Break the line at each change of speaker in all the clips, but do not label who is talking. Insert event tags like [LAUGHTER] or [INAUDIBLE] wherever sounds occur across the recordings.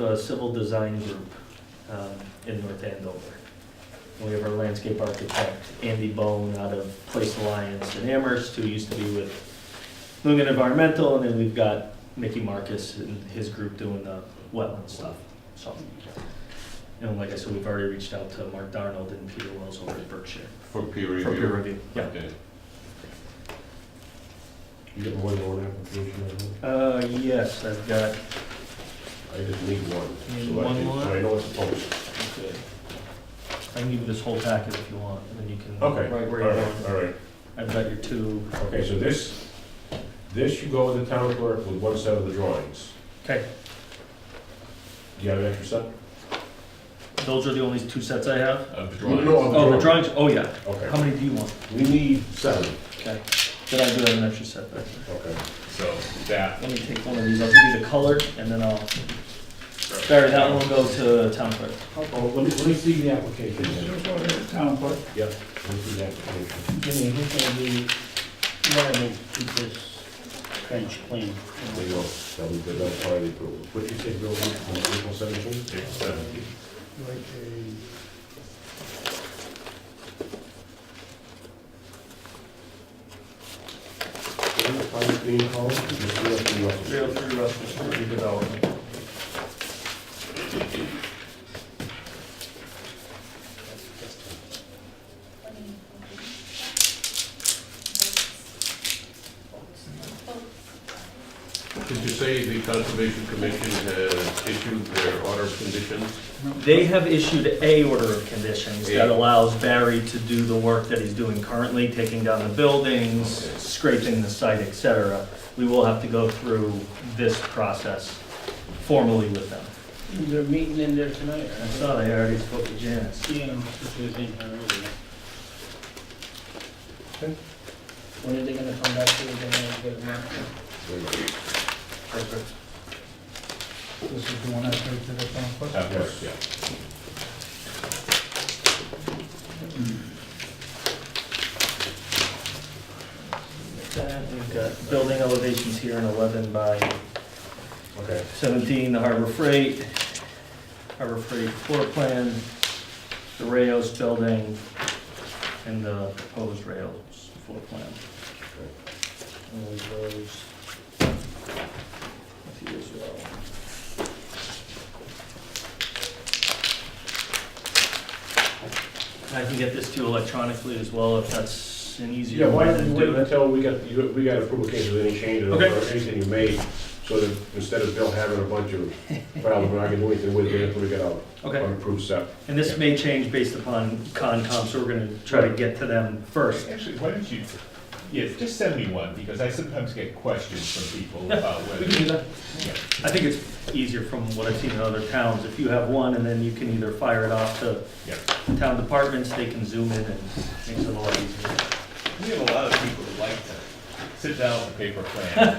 uh, Civil Design Group um, in North Andover. We have our landscape architect, Andy Bone, out of Place Alliance in Amherst, who used to be with Lumen Environmental, and then we've got Mickey Marcus and his group doing the wetland stuff, so. And like I said, we've already reached out to Mark Darnold and Peter Wells over at Berkshire.
For peer review?
For peer review. Yeah.
Okay.
You get more than one application, I think.
Uh, yes, I've got,
I just need one.
You need
so I
one
can-
more?
so I know it's a post.
okay. I can give you this whole packet if you want, and then you can.
Okay,
Right where
all
you
right,
want.
all right.
I've got your two.
Okay, so this, this you go with the town clerk with one set of the drawings.
Okay,
Do you have an extra set?
those are the only two sets I have?
Of the
No,
drawings?
no,
Oh, the drawings, oh yeah. How
Okay,
many do you want?
we need seven,
Okay. Did I do have an extra set back there?
okay.
So that,
Let me take one of these, I'll give you the color, and then I'll, sorry, that one will go to town clerk.
Oh, let me, let me see the application. then.
Just wanted to town clerk,
Yep, let me see the application.
give me, who's gonna be, what to keep this trench clean?
There you go, that was good, that's why they approved. What you say, Bill, on April seventeenth?
April 17th.
Like
Private Green Hall, just do that for you.
three Russell Street redevelopment.
did you say the Conservation Commission has issued their order of conditions?
They have issued a order of conditions that
Yeah.
allows Barry to do the work that he's doing currently, taking down the buildings,
Okay.
scraping the site, et cetera. We will have to go through this process formally with them.
a, is there a meeting in there tonight?
I saw they already spoke to Janice.
Yeah, this was in here earlier.
Okay.
When are they gonna come back to, they're gonna get a map?
There you go.
Perfect.
This is the one I gave to the town clerk.
Of course, yeah.
That, We've got building elevations here in 11 by
Okay.
17, the Harbor Freight, Harbor Freight floor plan, the Rayos building, and the proposed Rayos floor plan. And there's those. A few as well. I can get this to you electronically as well, if that's an
Yeah,
easier way
why
to
don't
do
you
it.
wait until we got, you- we got approval case of any changes or
Okay.
anything you made, so that instead of Bill having a bunch of problems, we're not gonna do anything with it until we get out.
Okay.
Unapproved stuff.
And this may change based upon Concom, so we're gonna try to get to them first.
Actually, why don't you, yeah, just send me one, because I sometimes get questions from people about
We can
whether.
do that. I think it's easier from what I've seen in other towns, if you have one, and then you can either fire it off to
Yeah.
town departments, they can zoom in and makes it a lot easier.
We have a lot of people who like to sit down with a paper plan.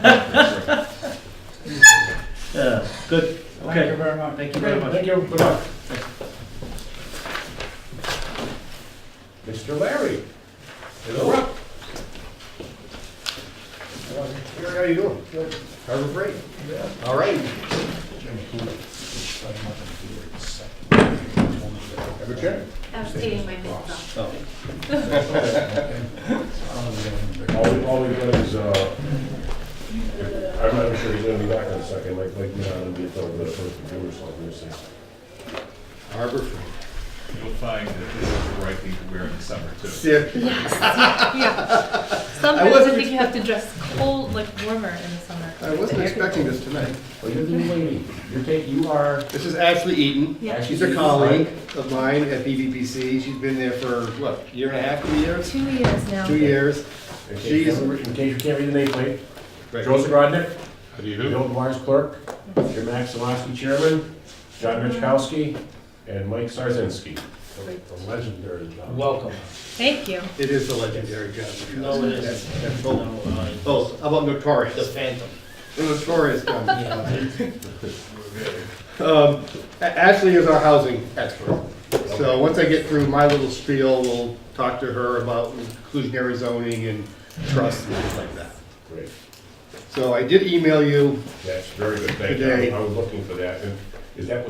Yeah, Uh, good,
Thank you
okay,
very much.
thank you very much.
Thank you, good luck. Mr. Larry. Hello. Larry, how you doing? Good. Harbor Freight? Yeah. All right. Have a check.
I'm staying my myself.
All, all we've got is, uh, I'm not sure he's gonna be back in a second, like, like, not gonna be a little bit of a computer or something, so.
Harbor
[LAUGHS] You'll find that this is the right thing to wear in the summer, too.
Yes,
Freight.
[LAUGHS] yeah. Sometimes I
wasn't
think you have to dress cold, like warmer in the summer.
I wasn't expecting this tonight.
But you're the new lady, you're take, you are.
This is Ashley Eaton.
Yeah.
She's a colleague of mine at BVPC. She's been there for, what, a year and a half, two years?
Two years now.
Two years.
In case you
She's-
haven't- in case you can't read the nameplate,
Right.
Joseph Rodnick,
How do you do?
Bill Dwyer's clerk, Jim Axelowski chairman, John Richkowski, and Mike Sarzinski. A legendary job.
Welcome.
Thank you.
It is the legendary job. to be
No, it
honest.
isn't.
That's- that's
No,
both-
uh,
Both. How about
The
notorious?
phantom.
The notorious [LAUGHS] job. [LAUGHS] Um, A- Ashley is our housing expert. So once I get through my little spiel, we'll talk to her about inclusionary zoning and trust and things like that.
Great.
So I did email you
That's very good, thank
Today.
you. I was looking for that, and Is that